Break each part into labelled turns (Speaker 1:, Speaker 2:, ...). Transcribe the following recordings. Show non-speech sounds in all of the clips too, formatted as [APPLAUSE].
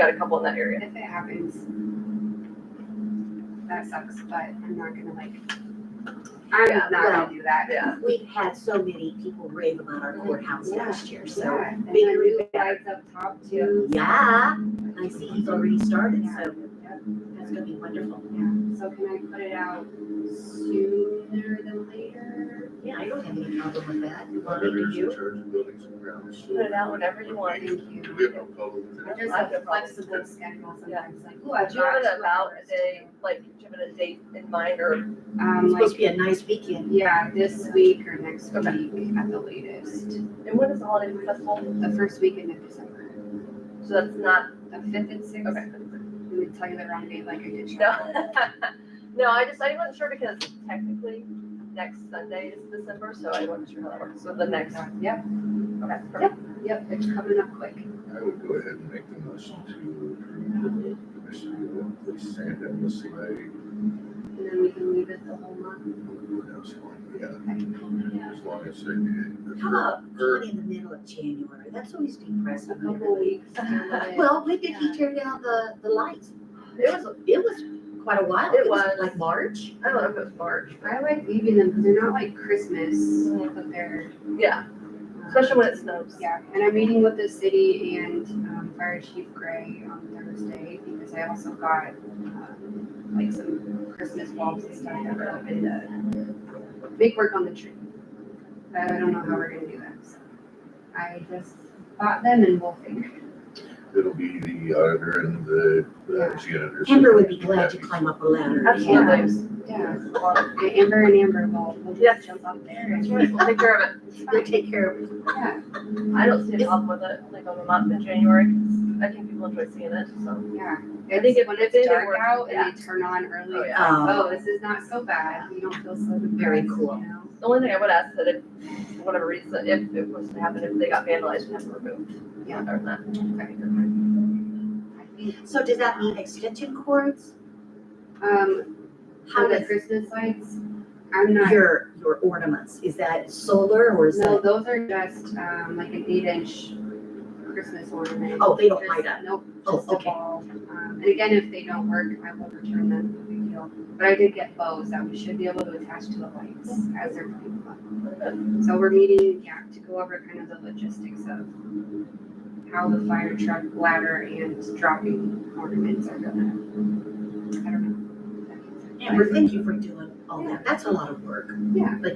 Speaker 1: got a couple in that area.
Speaker 2: If it happens, that sucks, but I'm not gonna like,
Speaker 1: Yeah,
Speaker 2: I'm not
Speaker 3: well,
Speaker 2: gonna do that.
Speaker 1: Yeah,
Speaker 3: We've had so many people rave about our courthouse last year, so.
Speaker 2: Yeah, and the
Speaker 3: bigger and
Speaker 2: new
Speaker 3: better.
Speaker 2: lights up top too.
Speaker 3: Yeah, I see he's already started, so
Speaker 2: Yeah.
Speaker 3: that's gonna be wonderful.
Speaker 2: Yeah, so can I put it out sooner than later?
Speaker 3: Yeah, I don't have any problem with that. You want me to
Speaker 4: Vendors,
Speaker 3: do?
Speaker 4: church, buildings and grounds.
Speaker 1: put it out whenever you want.
Speaker 2: Thank
Speaker 4: Do
Speaker 2: you.
Speaker 4: we have no problem with
Speaker 2: I
Speaker 4: that?
Speaker 2: just have a flexible schedule sometimes, like, ooh, I've
Speaker 1: Do you have
Speaker 2: got
Speaker 1: it
Speaker 2: two
Speaker 1: about a
Speaker 2: hours.
Speaker 1: day, like, do you have it a date in mind or,
Speaker 2: Um,
Speaker 3: It's
Speaker 2: like,
Speaker 3: supposed to be a nice weekend.
Speaker 2: yeah, this week or next
Speaker 1: Okay.
Speaker 2: week at the latest,
Speaker 1: and when is the holiday festival?
Speaker 2: the first weekend of December,
Speaker 1: So that's not,
Speaker 2: the fifth and sixth.
Speaker 1: okay.
Speaker 2: We would tell you the wrong date like I did. Charlotte.
Speaker 1: [LAUGHS] No, [LAUGHS] no, I just, I wasn't sure because technically next Sunday is December, so I wasn't sure how that works. So the next, okay,
Speaker 2: Yep,
Speaker 1: perfect.
Speaker 2: yep, it's coming up quick.
Speaker 4: I would go ahead and make the motion to approve the commission to place sand and the sleigh.
Speaker 2: And then we can leave it the whole month.
Speaker 4: Yeah,
Speaker 2: Okay.
Speaker 4: as long as they.
Speaker 3: How about
Speaker 4: Or-
Speaker 3: somebody in the middle of January? That's always
Speaker 2: A
Speaker 3: depressing.
Speaker 1: [LAUGHS]
Speaker 2: couple weeks.
Speaker 3: Well, when did he turn down the, the lights?
Speaker 1: It was,
Speaker 3: It was quite a while.
Speaker 1: It was.
Speaker 3: Like March?
Speaker 1: I don't know if it was March.
Speaker 2: I like leaving them because they're not like Christmas, but they're.
Speaker 1: Yeah,
Speaker 2: um,
Speaker 1: especially when it snows.
Speaker 2: Yeah, and I'm meeting with the city and um, Fire Chief Gray on Thursday because I also got um, like some Christmas bulbs and stuff that we're hoping to make work on the tree. But I don't know how we're gonna do that, so I just bought them and we'll figure.
Speaker 4: It'll be the auditor and the, the janitor.
Speaker 3: Amber would be glad to climb up a ladder.
Speaker 1: Absolutely.
Speaker 2: Yeah.
Speaker 1: It was-
Speaker 2: it out.
Speaker 1: it was a lot of-
Speaker 2: Yeah, and Amber and Amber will, will
Speaker 1: Yeah.
Speaker 2: just jump up there and.
Speaker 1: We'll take care of it.
Speaker 2: It's
Speaker 3: They'll [LAUGHS]
Speaker 2: fine.
Speaker 3: take care of it.
Speaker 2: Yeah,
Speaker 1: I don't see a problem with it, like on the month in January, 'cause I think people enjoy seeing it, so.
Speaker 2: yeah.
Speaker 1: I think
Speaker 2: It's
Speaker 1: if
Speaker 2: when
Speaker 1: it's
Speaker 2: it's
Speaker 1: in, it
Speaker 2: dark
Speaker 1: works.
Speaker 2: out
Speaker 1: Yeah.
Speaker 2: and they turn on early.
Speaker 1: Oh, yeah.
Speaker 2: Oh,
Speaker 3: Um,
Speaker 2: this is not so bad. We don't feel so depressed.
Speaker 3: Very cool.
Speaker 2: you know?
Speaker 1: The only thing I would ask is that if, for whatever reason, if it was to happen, if they got vandalized, we have to remove.
Speaker 2: Yeah.
Speaker 1: Other than that.
Speaker 2: I think,
Speaker 3: Um, so does that mean extension cords?
Speaker 2: um,
Speaker 3: How
Speaker 2: for the
Speaker 3: does
Speaker 2: Christmas lights, I'm not,
Speaker 3: your, your ornaments, is that solar or is
Speaker 2: no,
Speaker 3: that?
Speaker 2: those are just, um, like an eight inch Christmas ornament.
Speaker 3: Oh, they don't
Speaker 2: Just-
Speaker 3: light up.
Speaker 2: Nope,
Speaker 3: Oh,
Speaker 2: just a
Speaker 3: okay.
Speaker 2: ball. Um, and again, if they don't work, I will return them, no big deal. But I did get bows that we should be able to attach to the lights as they're putting them up. So we're meeting, yeah, to go over kind of the logistics of how the fire truck ladder and dropping ornaments are gonna, I don't know.
Speaker 3: Amber, thank you for doing all that. That's a lot of work.
Speaker 2: Yeah,
Speaker 3: A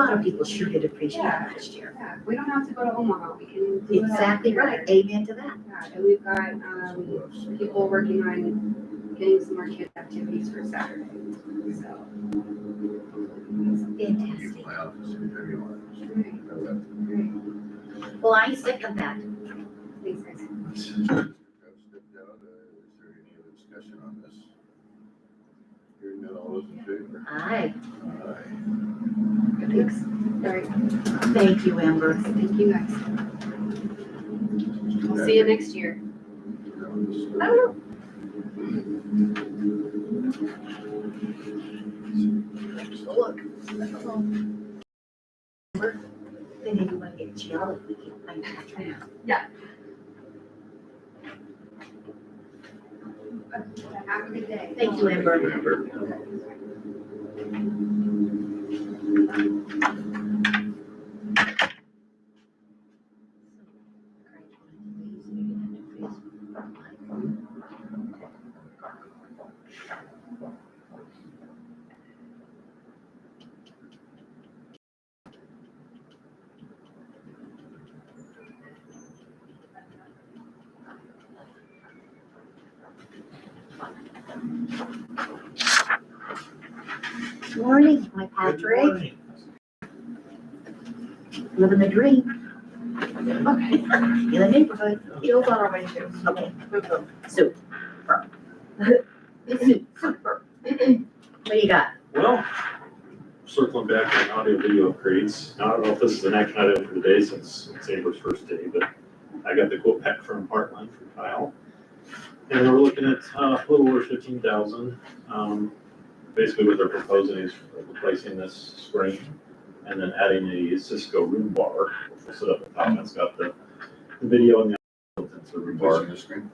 Speaker 3: lot of people sure did appreciate it
Speaker 2: Yeah.
Speaker 3: last year.
Speaker 2: yeah, we don't have to go to Omaha, we can do it all
Speaker 3: Exactly
Speaker 2: here.
Speaker 3: right. Amen to that.
Speaker 2: Yeah, and we've got, um, people working on getting some more kids activities for Saturday, so.
Speaker 4: Use
Speaker 3: Fantastic.
Speaker 4: my office anytime you want.
Speaker 2: Alright,
Speaker 4: I left.
Speaker 2: alright,
Speaker 3: Well, I second that.
Speaker 2: thanks guys.
Speaker 4: Is there any Uh, other discussion on this? Hearing none, all those in favor?
Speaker 3: Aye.
Speaker 4: Aye.
Speaker 2: Thanks. Alright,
Speaker 3: Thank you, Amber.
Speaker 2: thank you guys, we'll see you next year.
Speaker 1: I don't know,
Speaker 3: Look. Amber, Then anyone get jelly, we can play that.
Speaker 2: Have a good day.
Speaker 3: Thank you, Amber. Morning, my Patrick. Living the dream.
Speaker 1: okay,
Speaker 3: In the neighborhood.
Speaker 1: Jill's on her way too.
Speaker 3: Okay,
Speaker 1: Move them.
Speaker 3: so. [LAUGHS] What do you got?
Speaker 5: Well, circling back on audio video upgrades, now I don't know if this is an action item for the day since it's Amber's first day, but I got the quote back from Parkland from Kyle. And we're looking at uh, a little over fifteen thousand. Um, basically what they're proposing is replacing this screen and then adding a Cisco room bar, which will sit up at top. It's got the the video and the built into the room bar.
Speaker 4: the screen?